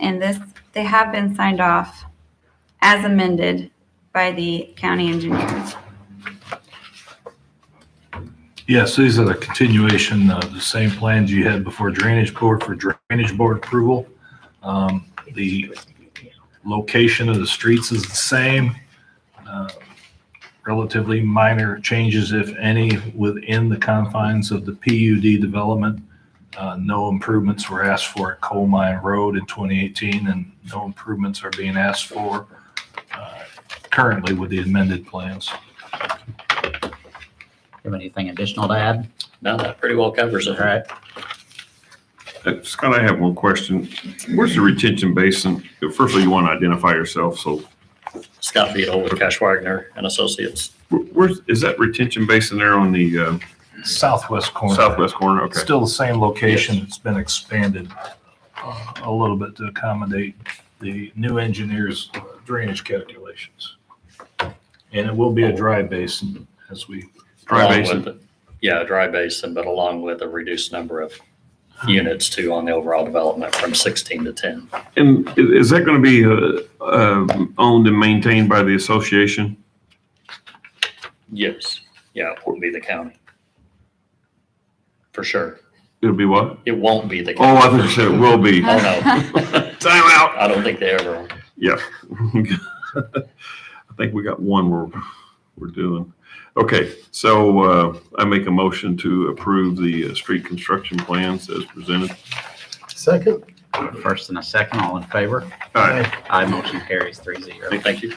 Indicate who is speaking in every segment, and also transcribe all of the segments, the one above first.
Speaker 1: And this, they have been signed off as amended by the county engineer.
Speaker 2: Yes, these are the continuation of the same plans you had before Drainage Board for Drainage Board approval. Um, The location of the streets is the same. uh, Relatively minor changes, if any, within the confines of the PUD development. Uh, No improvements were asked for at Coal Mine Road in 2018, and no improvements are being asked for uh, currently with the amended plans.
Speaker 3: Have anything additional to add?
Speaker 4: No, that pretty well covers
Speaker 3: All
Speaker 4: it.
Speaker 3: right.
Speaker 5: Uh, Scott, I have one question. Where's the retention basin? Firstly, you want to identify yourself, so
Speaker 4: Scott Beadle with Cash Wagner and Associates.
Speaker 5: wh- where's, is that retention basin there on the uh,
Speaker 2: Southwest corner.
Speaker 5: southwest corner? Okay.
Speaker 2: Still the same location, it's been expanded uh, a little bit to accommodate the new engineer's drainage calculations. And it will be a dry basin as we,
Speaker 5: Dry
Speaker 4: Along
Speaker 5: basin.
Speaker 4: with- Yeah, dry basin, but along with a reduced number of units too on the overall development from 16 to 10.
Speaker 5: And i- is that going to be uh, uh, owned and maintained by the association?
Speaker 4: Yes. Yeah, it won't be the county. For sure.
Speaker 5: It'll be what?
Speaker 4: It won't be the.
Speaker 5: Oh,
Speaker 4: county.
Speaker 5: I thought you said it will be.
Speaker 4: Oh, no.
Speaker 5: Time out.
Speaker 4: I don't think they ever. are.
Speaker 5: Yeah. I think we got one we're, we're doing. Okay, so uh, I make a motion to approve the uh, street construction plans as presented.
Speaker 6: Second?
Speaker 3: First and a second, all in favor?
Speaker 5: All right.
Speaker 3: Aye, motion carries three zero.
Speaker 4: Thank you.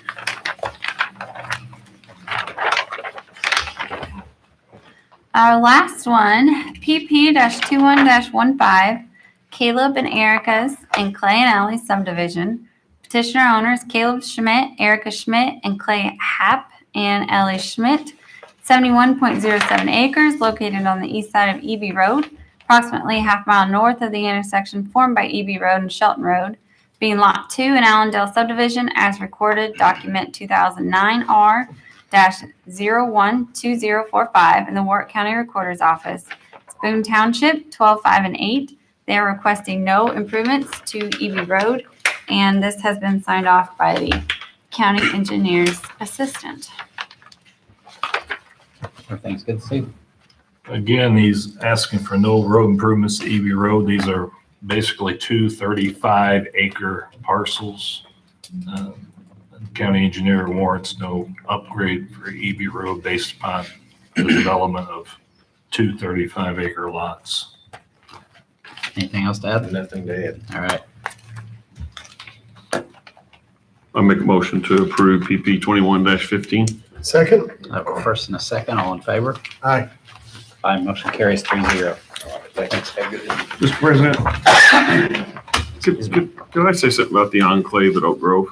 Speaker 1: Our last one, PP 21 15, Caleb and Erica's and Clay and Alley subdivision. Petitioner owners Caleb Schmidt, Erica Schmidt, and Clay Happ and Ellie Schmidt. 71.07 acres located on the east side of EB Road, approximately half mile north of the intersection formed by EB Road and Shelton Road, being Lot 2 in Allendale subdivision as recorded, document 2009R dash zero one two zero four five in the Warwick County Recorder's Office. Boone Township, twelve five and eight. They are requesting no improvements to EB Road, and this has been signed off by the county engineer's assistant.
Speaker 3: Everything's good, Steve?
Speaker 2: again, he's asking for no road improvements to EB Road. These are basically two 35 acre parcels. Uh, County engineer warrants no upgrade for EB Road based upon the development of two 35 acre lots.
Speaker 3: Anything else to add?
Speaker 6: Nothing to add.
Speaker 3: All right.
Speaker 5: I make a motion to approve PP twenty-one fifteen.
Speaker 6: Second?
Speaker 3: Uh, First and a second, all in favor?
Speaker 6: Aye.
Speaker 3: Aye, motion carries three zero.
Speaker 5: Mr. President. Could, could- could I say something about the enclave at Oak Grove?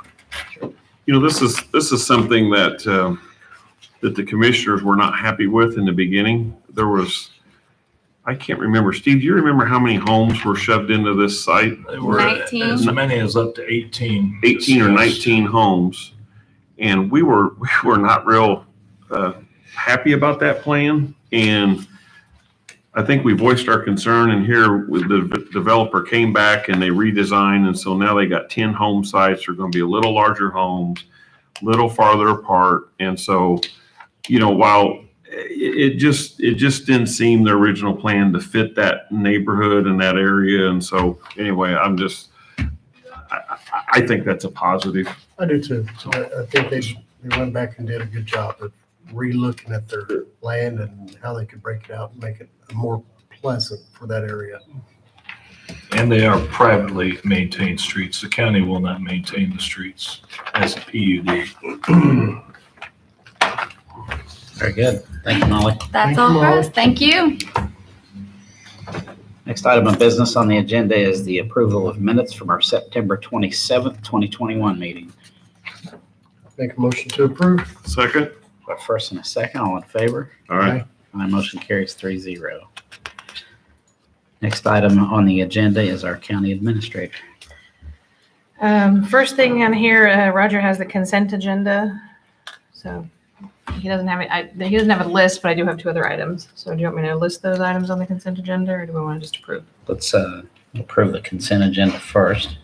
Speaker 5: You know, this is, this is something that, um, that the commissioners were not happy with in the beginning. There was, I can't remember, Steve, do you remember how many homes were shoved into this site?
Speaker 2: They were
Speaker 1: 19.
Speaker 2: as many as up to 18.
Speaker 5: 18 or
Speaker 2: discussed.
Speaker 5: 19 homes. And we were, we were not real uh, happy about that plan. And I think we voiced our concern and here with the developer came back and they redesigned. And so now they got 10 home sites. They're going to be a little larger homes, little farther apart. And so, you know, while it, it just, it just didn't seem the original plan to fit that neighborhood and that area. And so anyway, I'm just, I, I- I think that's a positive.
Speaker 6: I do too. I, I think they, they went back and did a good job of relooking at their land and how they could break it out and make it more pleasant for that area.
Speaker 2: And they are privately maintained streets. The county will not maintain the streets as a PUD.
Speaker 3: Very good. Thank you, Molly.
Speaker 1: That's
Speaker 6: Thank
Speaker 1: all
Speaker 6: you,
Speaker 1: for
Speaker 6: Molly.
Speaker 1: us. Thank you.
Speaker 3: Next item of business on the agenda is the approval of minutes from our September 27th, 2021 meeting.
Speaker 6: Make a motion to approve?
Speaker 5: Second?
Speaker 3: Uh, First and a second, all in favor?
Speaker 5: All right.
Speaker 3: My motion carries three zero. Next item on the agenda is our county administrator.
Speaker 7: Um, first thing on here, uh, Roger has the consent agenda. So he doesn't have, it- I, he doesn't have a list, but I do have two other items. So do you want me to list those items on the consent agenda or do we want to just approve?
Speaker 3: Let's uh, approve the consent agenda first.